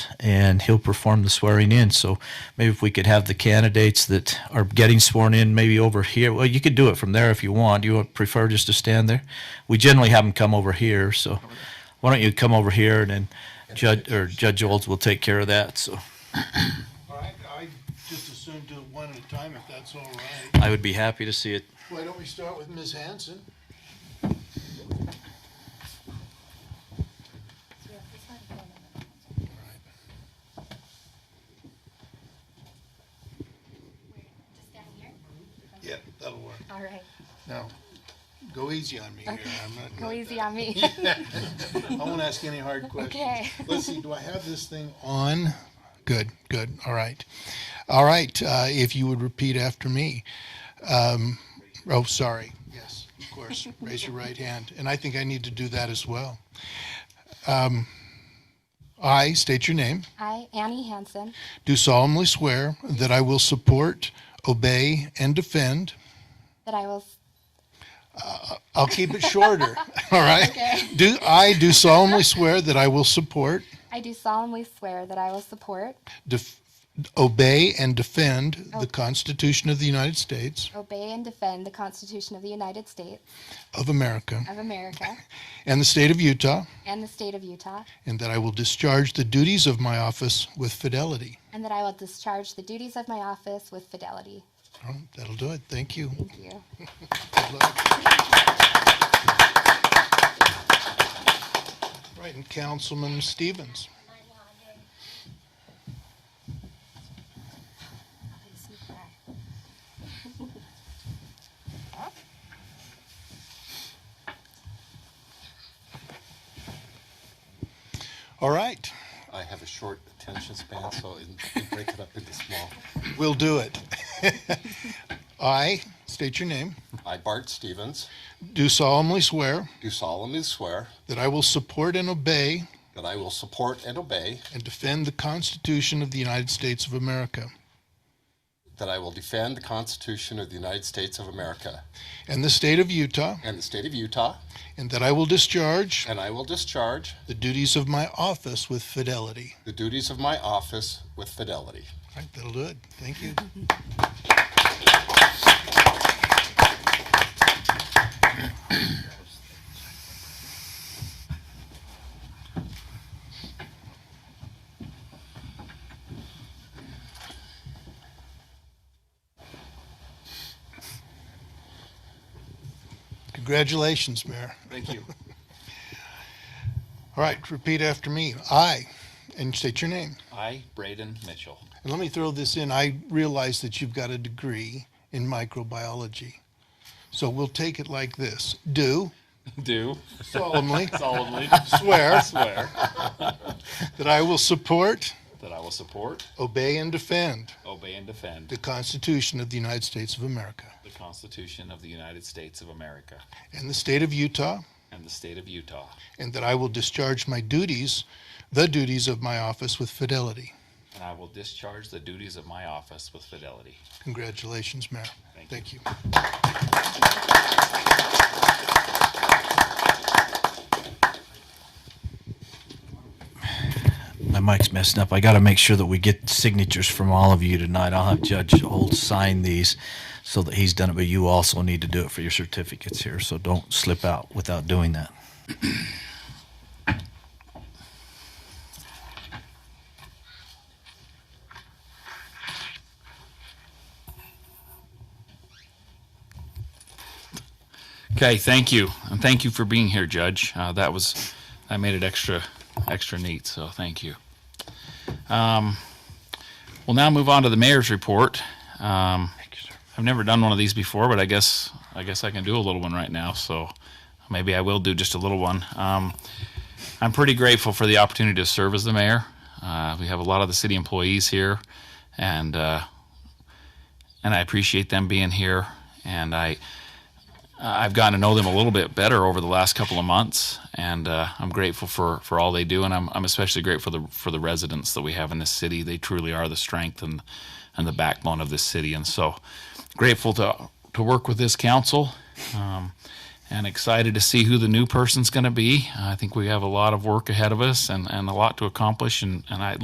and he'll perform the swearing in. So maybe if we could have the candidates that are getting sworn in, maybe over here. Well, you could do it from there if you want. You would prefer just to stand there? We generally have them come over here. So why don't you come over here and then Judge or Judge Olds will take care of that. So All right, I just assumed do it one at a time if that's all right. I would be happy to see it. Why don't we start with Ms. Hanson? Just down here? Yep, that'll work. All right. Now, go easy on me here. I'm not. Go like easy that. on me. I won't ask any hard questions. Okay. Let's see, do I have this thing on? Good, good, all right. All right, uh, if you would repeat after me. Um, oh, sorry, yes, of course, raise your right hand. And I think I need to do that as well. Um, I state your name. I, Annie Hansen, Do solemnly swear that I will support, obey, and defend. that I will, s- I'll keep it shorter. All right. Do I do solemnly swear that I will support, I do solemnly swear that I will support, def- obey, and defend the Constitution of the United States obey, and defend the Constitution of the United States of America of America and the state of Utah, and the state of Utah, and that I will discharge the duties of my office with fidelity. and that I will discharge the duties of my office with fidelity. All right, that'll do it. Thank you. Thank you. Good luck. Right, and Councilman Stevens. All right, I have a short attention span, so it break it up into small. we'll do it. I state your name. I, Bart Stevens, Do solemnly swear do solemnly swear that I will support and obey that I will support and obey, and defend the Constitution of the United States of America that I will defend the Constitution of the United States of America and the state of Utah, and the state of Utah, and that I will discharge and I will discharge the duties of my office with fidelity. the duties of my office with fidelity. All right, that'll do it. Thank you. Congratulations, Mayor. Thank you. All right, repeat after me. I, and state your name. I, Braden Mitchell. And let me throw this in. I realize that you've got a degree in microbiology. So we'll take it like this. Do Do solemnly solemnly swear swear that I will support, that I will support, obey, and defend obey, and defend the Constitution of the United States of America the Constitution of the United States of America and the state of Utah, and the state of Utah, and that I will discharge my duties, the duties of my office with fidelity. and I will discharge the duties of my office with fidelity. Congratulations, Mayor. Thank you. Thank you. My mic's messing up. I got to make sure that we get signatures from all of you tonight. I'll have Judge Olds sign these so that he's done it, but you also need to do it for your certificates here, so don't slip out without doing that. Okay, thank you, and thank you for being here, Judge. Uh, that was that made it extra extra neat. So thank you. Um, we'll now move on to the mayor's report. Um, I've never done one of these before, but I guess I guess I can do a little one right now. So maybe I will do just a little one. Um, I'm pretty grateful for the opportunity to serve as the mayor. Uh, we have a lot of the city employees here, and uh, and I appreciate them being here. And I I've gotten to know them a little bit better over the last couple of months, and uh, I'm grateful for, for all they do, and I'm, I'm especially grateful for the for the residents that we have in this city. They truly are the strength and and the backbone of this city, and so grateful to to work with this council, um, and excited to see who the new person's going to be. I think we have a lot of work ahead of us and, and a lot to accomplish, and and I